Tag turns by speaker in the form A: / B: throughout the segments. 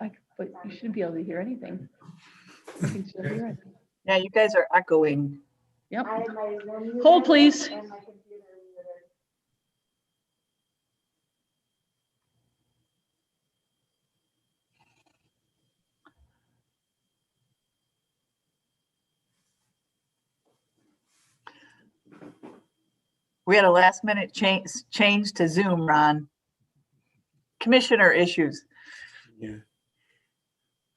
A: I, c- but you shouldn't be able to hear anything. You can still hear it.
B: Now you guys are echoing.
A: Yep,
C: I had my Zoom muted
A: Hold, please.
C: and my computer muted.
B: We had a last minute change, change to Zoom, Ron. Commissioner issues.
D: Yeah.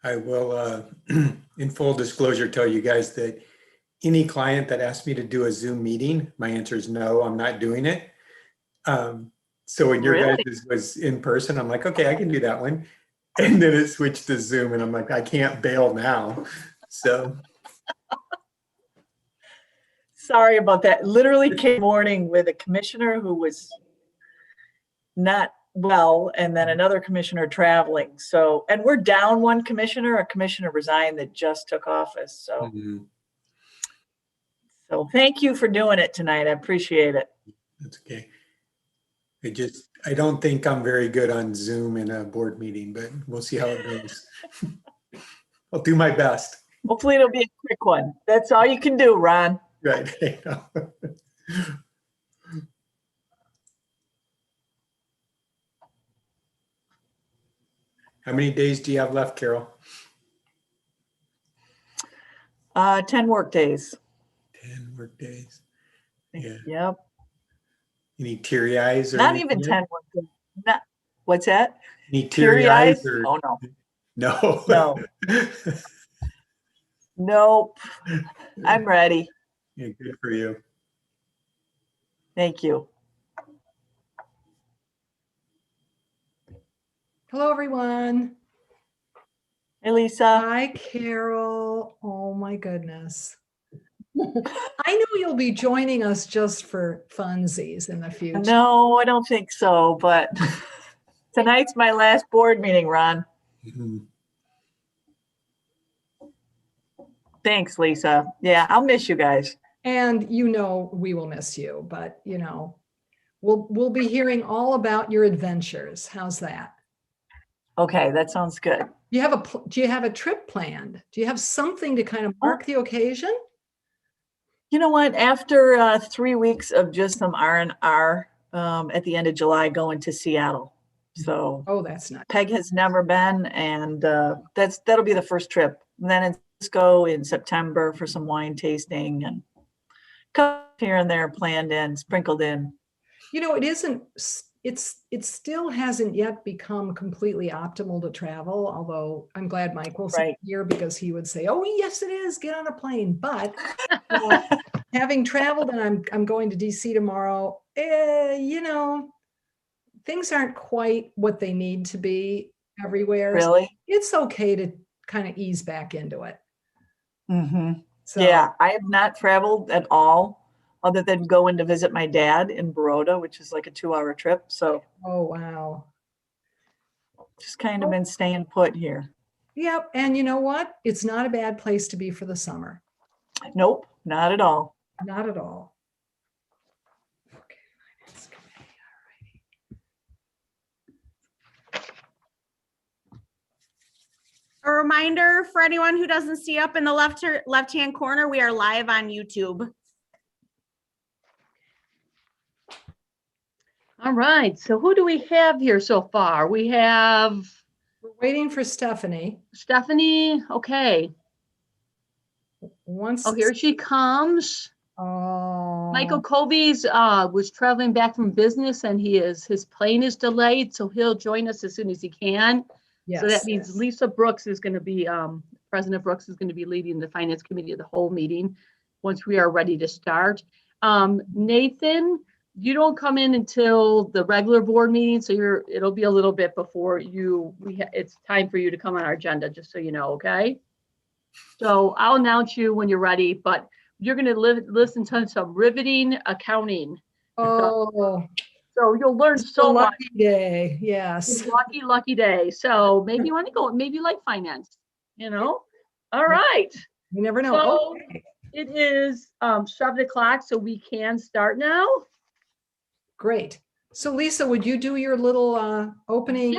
D: I will, uh, in full disclosure, tell you guys that any client that asks me to do a Zoom meeting, my answer is no, I'm not doing it. Um, So when your
B: Really?
D: guys was in person, I'm like, okay, I can do that one. And then it switched to Zoom and I'm like, I can't bail now. So,
B: Sorry about that. Literally came morning with a commissioner who was not well, and then another commissioner traveling. So, and we're down one commissioner, a commissioner resigned that just took office. So,
D: mm,
B: so thank you for doing it tonight. I appreciate it.
D: that's okay. I just, I don't think I'm very good on Zoom in a board meeting, but we'll see how it goes. I'll do my best.
B: Hopefully it'll be a quick one. That's all you can do, Ron.
D: Right. How many days do you have left, Carol?
B: Uh, 10 work days.
D: 10 work days. Yeah.
B: Yep.
D: Any teary eyes? or
B: Not
D: anything
B: even
D: yet?
B: 10 work days. Not, what's that?
D: Any teary eyes? or-
B: Oh, no,
D: No.
B: no, nope. I'm ready.
D: Yeah, Good for you.
B: Thank you.
E: Hello, everyone.
B: Hey, Lisa.
E: Hi, Carol. Oh, my goodness. I know you'll be joining us just for funsies in the future.
B: No, I don't think so, but tonight's my last board meeting, Ron.
D: Mhm.
B: Thanks, Lisa. Yeah, I'll miss you guys.
E: And you know we will miss you, but you know, we'll we'll be hearing all about your adventures. How's that?
B: Okay, that sounds good.
E: You have a pl- do you have a trip planned? Do you have something to kind of mark the occasion?
B: You know what? After uh, three weeks of just some R and R um, at the end of July, going to Seattle. So
E: Oh, that's not
B: Peg has never been, and uh, that's that'll be the first trip. And then in Cisco in September for some wine tasting and cup here and there planned in, sprinkled in.
E: You know, it isn't, s- it's, it still hasn't yet become completely optimal to travel, although I'm glad Mike will
B: Right.
E: say here because he would say, oh, yes, it is, get on a plane. But uh, having traveled and I'm, I'm going to DC tomorrow, eh, you know, things aren't quite what they need to be everywhere. So
B: Really?
E: It's okay to kind of ease back into it.
B: hmm
E: Mm-hmm. So
B: Yeah, I have not traveled at all, other than going to visit my dad in Baroda, which is like a two-hour trip. So
E: Oh, wow.
B: just kind of been staying put here.
E: Yep. And you know what? It's not a bad place to be for the summer.
B: Nope, not at all.
E: Not at all. Okay, finance committee,
C: A reminder for anyone who doesn't see up in the left, left-hand corner, we are live on YouTube.
A: all right. So who do we have here so far? We have
E: We're waiting for Stephanie.
A: Stephanie. Okay.
E: Once.
A: Oh, here she comes.
E: Oh.
A: Michael Covey's, uh, was traveling back from business and he is, his plane is delayed, so he'll join us as soon as he can. So that
E: yes.
A: means Lisa Brooks is gonna be, um, President Brooks is gonna be leading the Finance Committee of the whole meeting, once we are ready to start. Um, Nathan, you don't come in until the regular board meeting, so you're, it'll be a little bit before you, we, ha- it's time for you to come on our agenda, just so you know, okay? So I'll announce you when you're ready, but you're gonna live, listen to some riveting accounting.
E: Oh,
A: So you'll learn
E: so
A: so much.
E: lucky day. Yes.
A: Lucky, lucky day. So maybe you want to go, maybe you like finance, you know? All right,
E: You never know.
A: So-
E: Okay.
A: it is um seven o'clock, so we can start now.
E: Great. So Lisa, would you do your little uh, opening?